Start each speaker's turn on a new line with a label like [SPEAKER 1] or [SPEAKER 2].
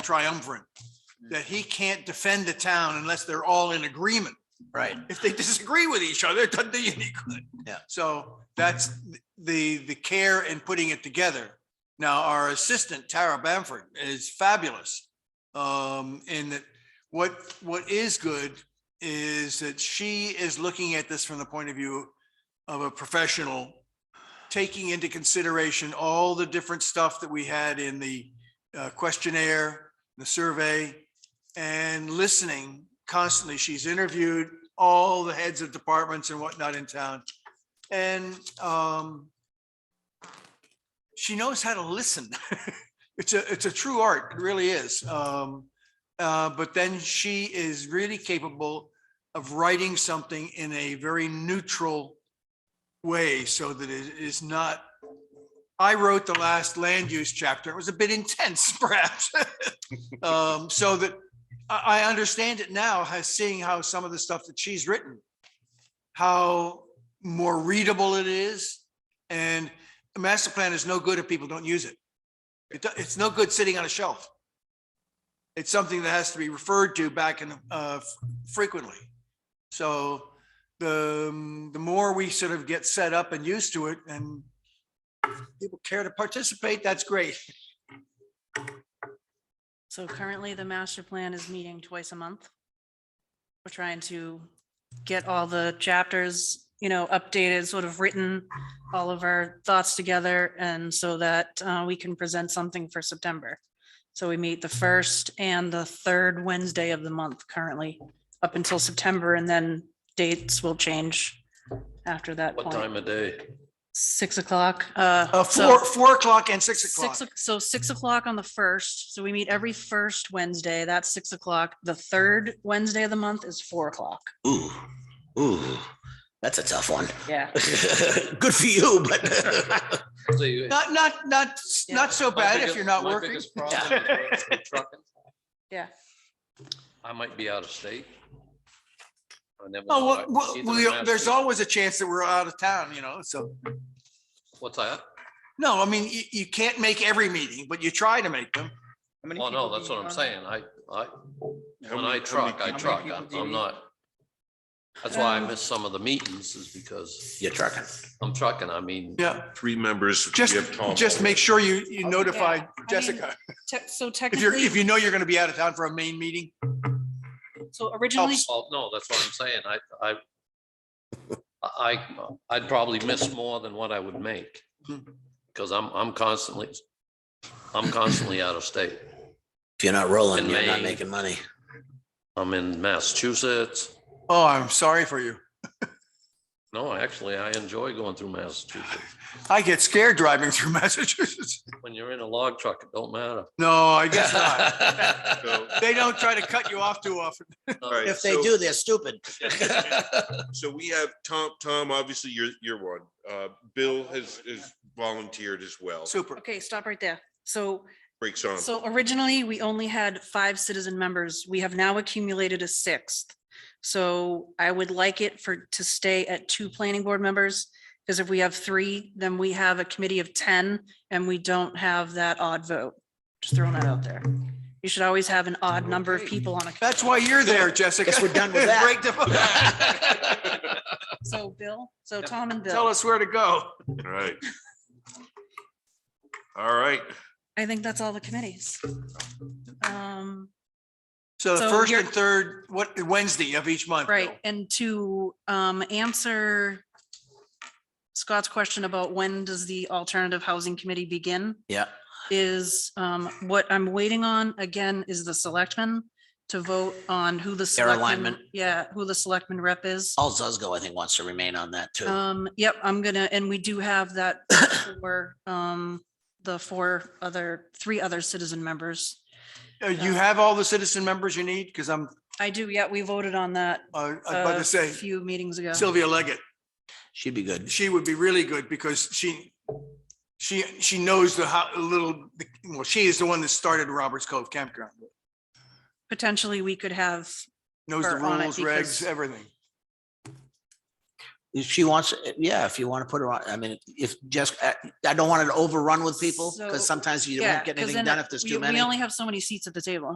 [SPEAKER 1] triumvirate, that he can't defend the town unless they're all in agreement.
[SPEAKER 2] Right.
[SPEAKER 1] If they disagree with each other, it doesn't do you any good.
[SPEAKER 2] Yeah.
[SPEAKER 1] So that's the, the care in putting it together. Now, our assistant Tara Bamford is fabulous. Um, in that what, what is good is that she is looking at this from the point of view of a professional, taking into consideration all the different stuff that we had in the uh, questionnaire, the survey, and listening constantly. She's interviewed all the heads of departments and whatnot in town. And um, she knows how to listen. It's a, it's a true art, it really is. Um, uh, But then she is really capable of writing something in a very neutral way so that it is not, I wrote the last land use chapter. It was a bit intense perhaps. Um, So that I, I understand it now, has seeing how some of the stuff that she's written, how more readable it is. And a master plan is no good if people don't use it. It, do- it's no good sitting on a shelf. It's something that has to be referred to back and uh, frequently. So the, um, the more we sort of get set up and used to it and people care to participate, that's great.
[SPEAKER 3] So currently, the master plan is meeting twice a month. We're trying to get all the chapters, you know, updated, sort of written, all of our thoughts together, and so that uh, we can present something for September. So we meet the first and the third Wednesday of the month currently, up until September, and then dates will change after that
[SPEAKER 4] What
[SPEAKER 3] point.
[SPEAKER 4] time of day?
[SPEAKER 3] Six o'clock. uh,
[SPEAKER 1] Uh,
[SPEAKER 3] so-
[SPEAKER 1] Four, four o'clock and six o'clock.
[SPEAKER 3] Six, o- so six o'clock on the first, so we meet every first Wednesday, that's six o'clock. The third Wednesday of the month is four o'clock.
[SPEAKER 2] Ooh, ooh, that's a tough one.
[SPEAKER 3] Yeah.
[SPEAKER 2] Good for you, but
[SPEAKER 4] So you-
[SPEAKER 1] Not, not, not, not so
[SPEAKER 4] My
[SPEAKER 1] bad if
[SPEAKER 4] biggest-
[SPEAKER 1] you're not
[SPEAKER 4] my
[SPEAKER 1] working.
[SPEAKER 4] biggest problem is when I'm trucking,
[SPEAKER 3] Yeah,
[SPEAKER 4] I might be out of state. I never know.
[SPEAKER 1] Oh,
[SPEAKER 4] I-
[SPEAKER 1] well,
[SPEAKER 4] either
[SPEAKER 1] we,
[SPEAKER 4] I'm
[SPEAKER 1] there's
[SPEAKER 4] out-
[SPEAKER 1] always a chance that we're out of town, you know, so,
[SPEAKER 4] What's that?
[SPEAKER 1] no, I mean, you, you can't make every meeting, but you try to make them.
[SPEAKER 4] Well, Oh, no, that's what I'm saying. I, I, when I truck, I truck. I'm- I'm not. That's why I
[SPEAKER 3] Um,
[SPEAKER 4] miss some of the meetings is because
[SPEAKER 2] you're trucking.
[SPEAKER 4] I'm trucking. I mean,
[SPEAKER 1] Yeah,
[SPEAKER 5] Three members. we
[SPEAKER 1] just,
[SPEAKER 5] have Tom
[SPEAKER 1] just
[SPEAKER 5] over.
[SPEAKER 1] make sure you, you
[SPEAKER 4] Okay.
[SPEAKER 1] notify
[SPEAKER 3] Yeah, I
[SPEAKER 1] Jessica.
[SPEAKER 3] Te- so
[SPEAKER 1] If you're, if
[SPEAKER 3] technically,
[SPEAKER 1] you know you're gonna be out of town for a main meeting,
[SPEAKER 3] so originally,
[SPEAKER 4] well, no, that's what I'm saying. I, I, I, I'd probably miss more than what I would make. Because I'm, I'm constantly, I'm constantly out of state.
[SPEAKER 2] If you're not rolling,
[SPEAKER 4] In
[SPEAKER 2] you're not
[SPEAKER 4] May.
[SPEAKER 2] making money.
[SPEAKER 4] I'm in Massachusetts.
[SPEAKER 1] oh, I'm sorry for you.
[SPEAKER 4] No, actually, I enjoy going through Massachusetts.
[SPEAKER 1] I get scared driving through Massachusetts.
[SPEAKER 4] When you're in a log truck, it don't matter.
[SPEAKER 1] No, I guess not. They don't try to
[SPEAKER 4] cut.
[SPEAKER 1] cut you off too often.
[SPEAKER 5] All right,
[SPEAKER 2] If they
[SPEAKER 5] so-
[SPEAKER 2] do, they're stupid.
[SPEAKER 5] So we have Tom, Tom, obviously you're, you're one. Uh, Bill has, has volunteered as well.
[SPEAKER 1] Super.
[SPEAKER 3] okay, stop right there. So,
[SPEAKER 5] Breaks on.
[SPEAKER 3] so originally, we only had five citizen members. We have now accumulated a sixth. So I would like it for, to stay at two planning board members, because if we have three, then we have a committee of ten, and we don't have that odd vote. Just throwing that out there. You should always have an odd number of people on a.
[SPEAKER 1] That's why you're there, Jessica.
[SPEAKER 2] Guess we're done with that.
[SPEAKER 1] Break the-
[SPEAKER 3] So Bill, so Tom and
[SPEAKER 1] Tell
[SPEAKER 3] Bill,
[SPEAKER 1] us where to go.
[SPEAKER 5] All right. All right.
[SPEAKER 3] I think that's all the committees. Um,
[SPEAKER 1] So the
[SPEAKER 3] So
[SPEAKER 1] first
[SPEAKER 3] you're-
[SPEAKER 1] and third, what, Wednesday of each month. Bill.
[SPEAKER 3] right, and to um answer Scott's question about when does the alternative housing committee begin?
[SPEAKER 2] Yeah.
[SPEAKER 3] Is um what I'm waiting on again is the selectmen to vote on who the.
[SPEAKER 2] Their
[SPEAKER 3] selectmen-
[SPEAKER 2] alignment.
[SPEAKER 3] Yeah, who the selectman rep is.
[SPEAKER 2] All Zuzgo, I think, wants to remain on that too.
[SPEAKER 3] Um, yep, I'm gonna, and we do have that for um the four other, three other citizen members.
[SPEAKER 1] Uh, You have all the citizen members you need? Because I'm,
[SPEAKER 3] I do, yeah, we voted on that
[SPEAKER 1] uh, I was about
[SPEAKER 3] a
[SPEAKER 1] to say
[SPEAKER 3] few meetings ago.
[SPEAKER 1] Sylvia Leggett.
[SPEAKER 2] She'd be good.
[SPEAKER 1] She would be really good because she, she, she knows the how, little, well, she is the one that started Roberts Cove Campground.
[SPEAKER 3] Potentially, we could have,
[SPEAKER 1] Knows the
[SPEAKER 3] Or on it
[SPEAKER 1] rules,
[SPEAKER 3] because-
[SPEAKER 1] regs, everything.
[SPEAKER 2] If she wants, yeah, if you want to put her on, I mean, if just, I I don't want it overrun with people
[SPEAKER 3] So-
[SPEAKER 2] because sometimes you
[SPEAKER 3] Yeah,
[SPEAKER 2] won't get
[SPEAKER 3] 'cause
[SPEAKER 2] anything
[SPEAKER 3] then
[SPEAKER 2] done if there's
[SPEAKER 3] we-
[SPEAKER 2] too many.
[SPEAKER 3] We only have so many seats at the table.